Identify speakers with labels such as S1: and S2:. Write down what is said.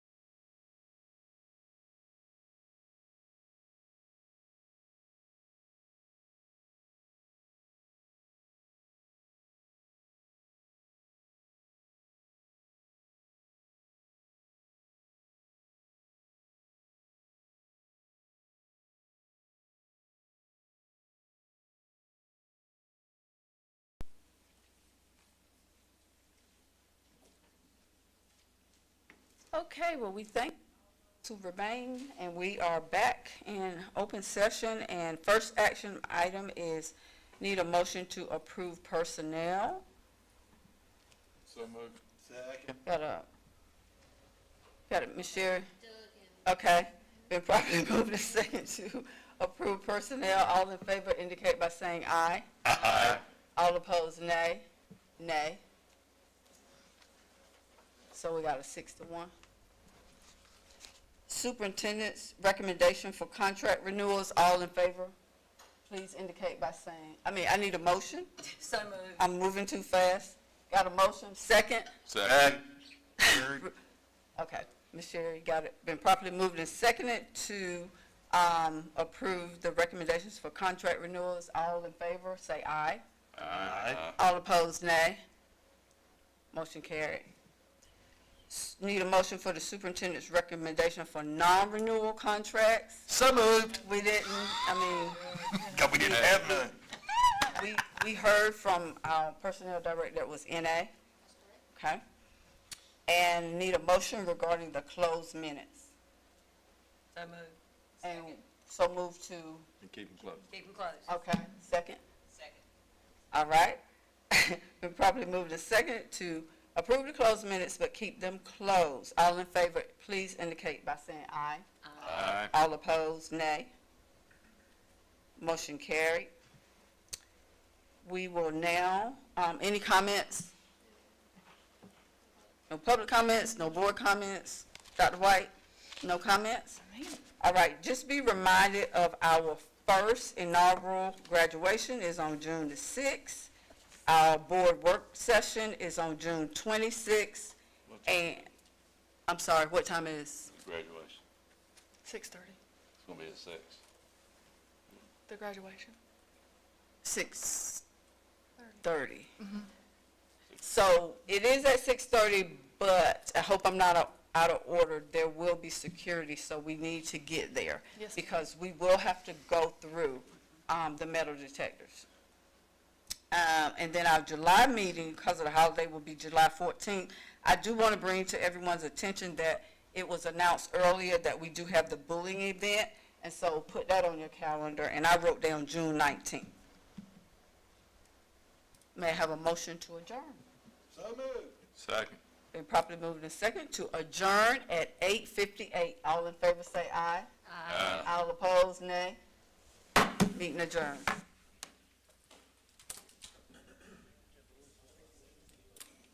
S1: Okay, well, we thank to remain, and we are back in open session, and first action item is need a motion to approve personnel.
S2: So moved. Second.
S1: Got a, got it, Ms. Sherry? Okay, been properly moved and second to approve personnel, all in favor indicate by saying aye.
S2: Aye.
S1: All opposed, nay. Nay. So we got a six to one. Superintendent's recommendation for contract renewals, all in favor? Please indicate by saying, I mean, I need a motion.
S3: So moved.
S1: I'm moving too fast. Got a motion? Second?
S2: Second.
S1: Okay, Ms. Sherry, got it. Been properly moved and seconded to, um, approve the recommendations for contract renewals. All in favor, say aye.
S2: Aye.
S1: All opposed, nay. Motion carried. S- Need a motion for the superintendent's recommendation for non-renewal contracts?
S2: So moved.
S1: We didn't, I mean,
S2: we didn't have none.
S1: we, we heard from our personnel director that was NA. Okay? And need a motion regarding the closed minutes.
S3: So moved.
S1: And so move to,
S2: And keep them close.
S3: Keep them closed.
S1: okay, second?
S3: Second.
S1: All right. We probably move to second to approve the closed minutes, but keep them closed. All in favor, please indicate by saying aye.
S2: Aye.
S1: All opposed, nay. Motion carried. We will now, um, any comments? No public comments, no board comments? Dr. White, no comments? All right, just be reminded of our first inaugural graduation is on June the sixth. Our board work session is on June twenty-sixth,
S2: What time?
S1: and, I'm sorry, what time is?
S2: Graduation.
S4: Six thirty,
S2: It's gonna be at six.
S4: the graduation.
S1: Six thirty. Mm-hmm. So it is at six thirty, but I hope I'm not out- out of order. There will be security, so we need to get there.
S4: Yes, ma'am.
S1: Because we will have to go through, um, the metal detectors. Um, and then our July meeting, because of the holiday, will be July fourteenth. I do want to bring to everyone's attention that it was announced earlier that we do have the bullying event. And so put that on your calendar, and I wrote down June nineteenth. May I have a motion to adjourn?
S2: So moved. Second.
S1: Been properly moved and second to adjourn at eight fifty-eight. All in favor say aye.
S2: Aye.
S1: All opposed, nay. Meeting adjourned.